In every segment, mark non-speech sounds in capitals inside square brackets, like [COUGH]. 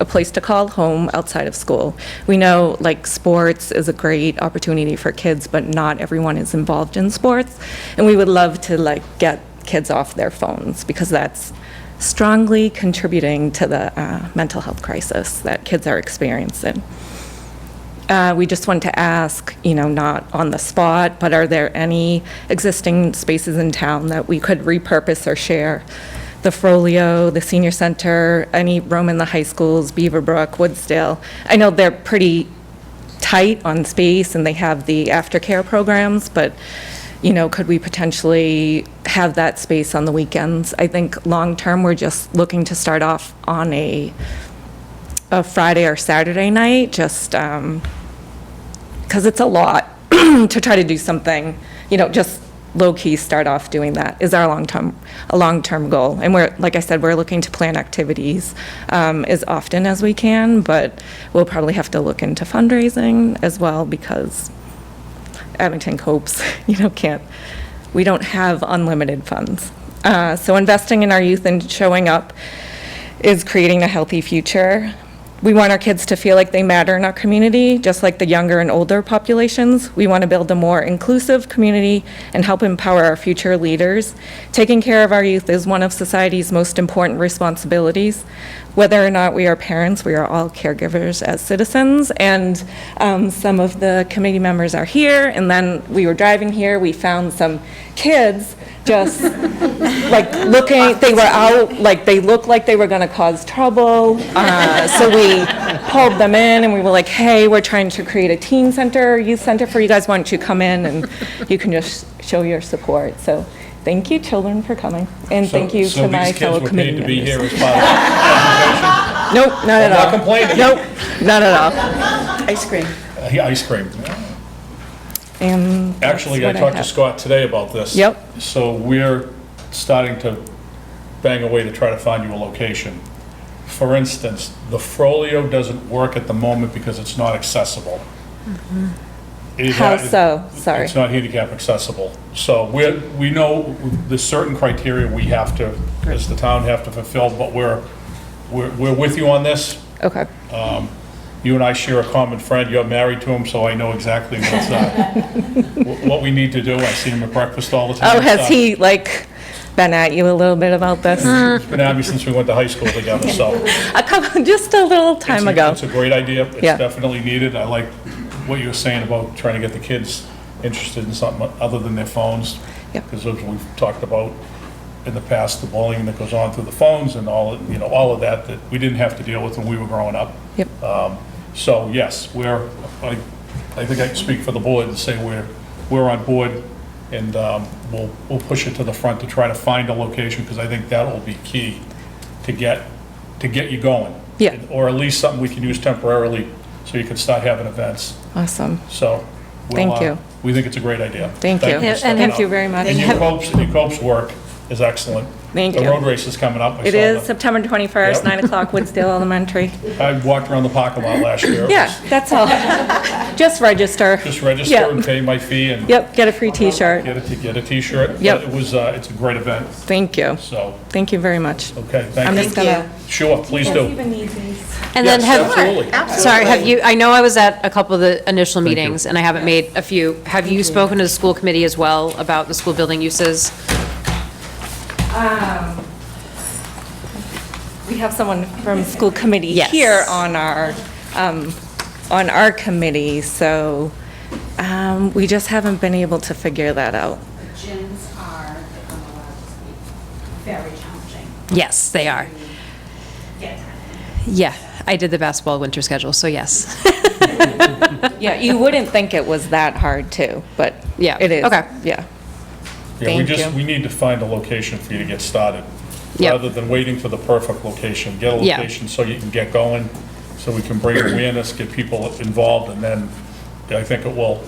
a place to call home outside of school. We know, like, sports is a great opportunity for kids, but not everyone is involved in sports. And we would love to, like, get kids off their phones because that's strongly contributing to the uh, mental health crisis that kids are experiencing. Uh, We just want to ask, you know, not on the spot, but are there any existing spaces in town that we could repurpose or share? The Frollo, the Senior Center, any room in the high schools, Beaverbrook, Woodsdale? I know they're pretty tight on space and they have the aftercare programs, but, you know, could we potentially have that space on the weekends? I think long-term, we're just looking to start off on a a Friday or Saturday night, just um, because it's a lot [CLEARS THROAT] to try to do something, you know, just low-key start off doing that is our long-term, a long-term goal. And we're, like I said, we're looking to plan activities um, as often as we can, but we'll probably have to look into fundraising as well because Abington copes, [LAUGHS] you know, can't, we don't have unlimited funds. Uh, So investing in our youth and showing up is creating a healthy future. We want our kids to feel like they matter in our community, just like the younger and older populations. We want to build a more inclusive community and help empower our future leaders. Taking care of our youth is one of society's most important responsibilities. Whether or not we are parents, we are all caregivers as citizens, and um, some of the committee members are here, and then we were driving here, we found some kids just like looking, they were out, like they looked like they were going to cause trouble. Uh, So we pulled them in and we were like, hey, we're trying to create a teen center, youth center for you guys. Why don't you come in and you can just show your support? So thank you, children, for coming. And thank you to my fellow committee So these kids were paid to be here members. as part Nope, not at not all. [LAUGHS] complaining. Nope, not at all. Ice cream. of the ice cream. And Actually, I Um, what I talked to have. Scott today about this. Yep. So we're starting to bang away to try to find you a location. For instance, the Frollo doesn't work at the moment because it's not accessible. It is Mm-hmm. how not- so? Sorry. It's not handicap accessible. So we're, we know there's certain criteria we have to, as the town have to fulfill, but we're, we're, we're with you on this. Okay, You and I share a common friend, you're married to him, so I know exactly what's, uh, wh- what we need to do. I see him at breakfast all the time. uh, Oh, has he like been at you a little bit about this? It's been at me since we went to high school together, so. it's Uh, A couple, [LAUGHS] just a little a- time ago. It's a great idea. It's Yeah. definitely needed. I like what you were saying about trying to get the kids interested in something other than their phones. Yeah. Because as we've talked about in the past, the bullying that goes on through the phones and all, you know, all of that, that we didn't have to deal with when we were growing up. Yep. So yes, we're, I, I think I can speak for the board and say we're, we're on board and um, we'll, we'll push it to the front to try to find a location because I think that will be key to get, to get you going. Yeah. Or at least something we can use temporarily so you can start having events. Awesome. So. we'll, Thank uh, you. We think it's a great idea. Thank you. for Yeah, and stepping thank up. you very much. And your Cope's, your Cope's work is excellent. Thank The you. road race is coming up. I It saw is that. September 21st, Yep. 9 o'clock, Woodsdale [LAUGHS] Elementary. I walked around the parking lot last year. It Yeah, was that's all. [LAUGHS] Just register. Just register Yep. and pay my fee and Yep, get a free T-shirt. Get a, get a t-shirt. Yep. It was, uh, it's a great event, Thank you. so, Oh, Thank you very much. okay, I'm thank just you. Thank gonna, Sure, please do. And then Yes, have, Absolutely. sorry, have you, I know I was at a couple of the initial meetings, and I haven't made a few. Have you spoken to the school committee as well about the school building uses? we have someone from school committee Yes. here on our, um, on our committee, so um, we just haven't been able to figure that out. gyms are, if I'm allowed to speak, very challenging. Yes, they are. Get Yeah, I did the basketball winter schedule, so yes. Yeah, you wouldn't think it was that hard, too, but Yeah, it is. okay. Yeah. Yeah, we Thank just, you. we need to find a location for you to get started. Yep. Rather than waiting for the perfect location, get a Yeah. location so you can get going, so we can bring awareness, get people involved, and then I think it will,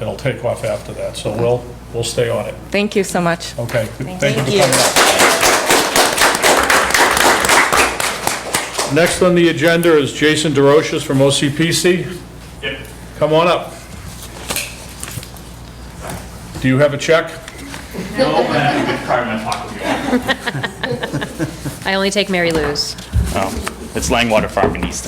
it'll take off after that, so we'll, we'll stay on it. Thank you so much. Okay, thank you for you. coming up. Next on the agenda is Jason DeRoches from OCPC. Come on up. Do you have a check? I only take Mary Lou's. Oh, It's Langwater Farm in Easton.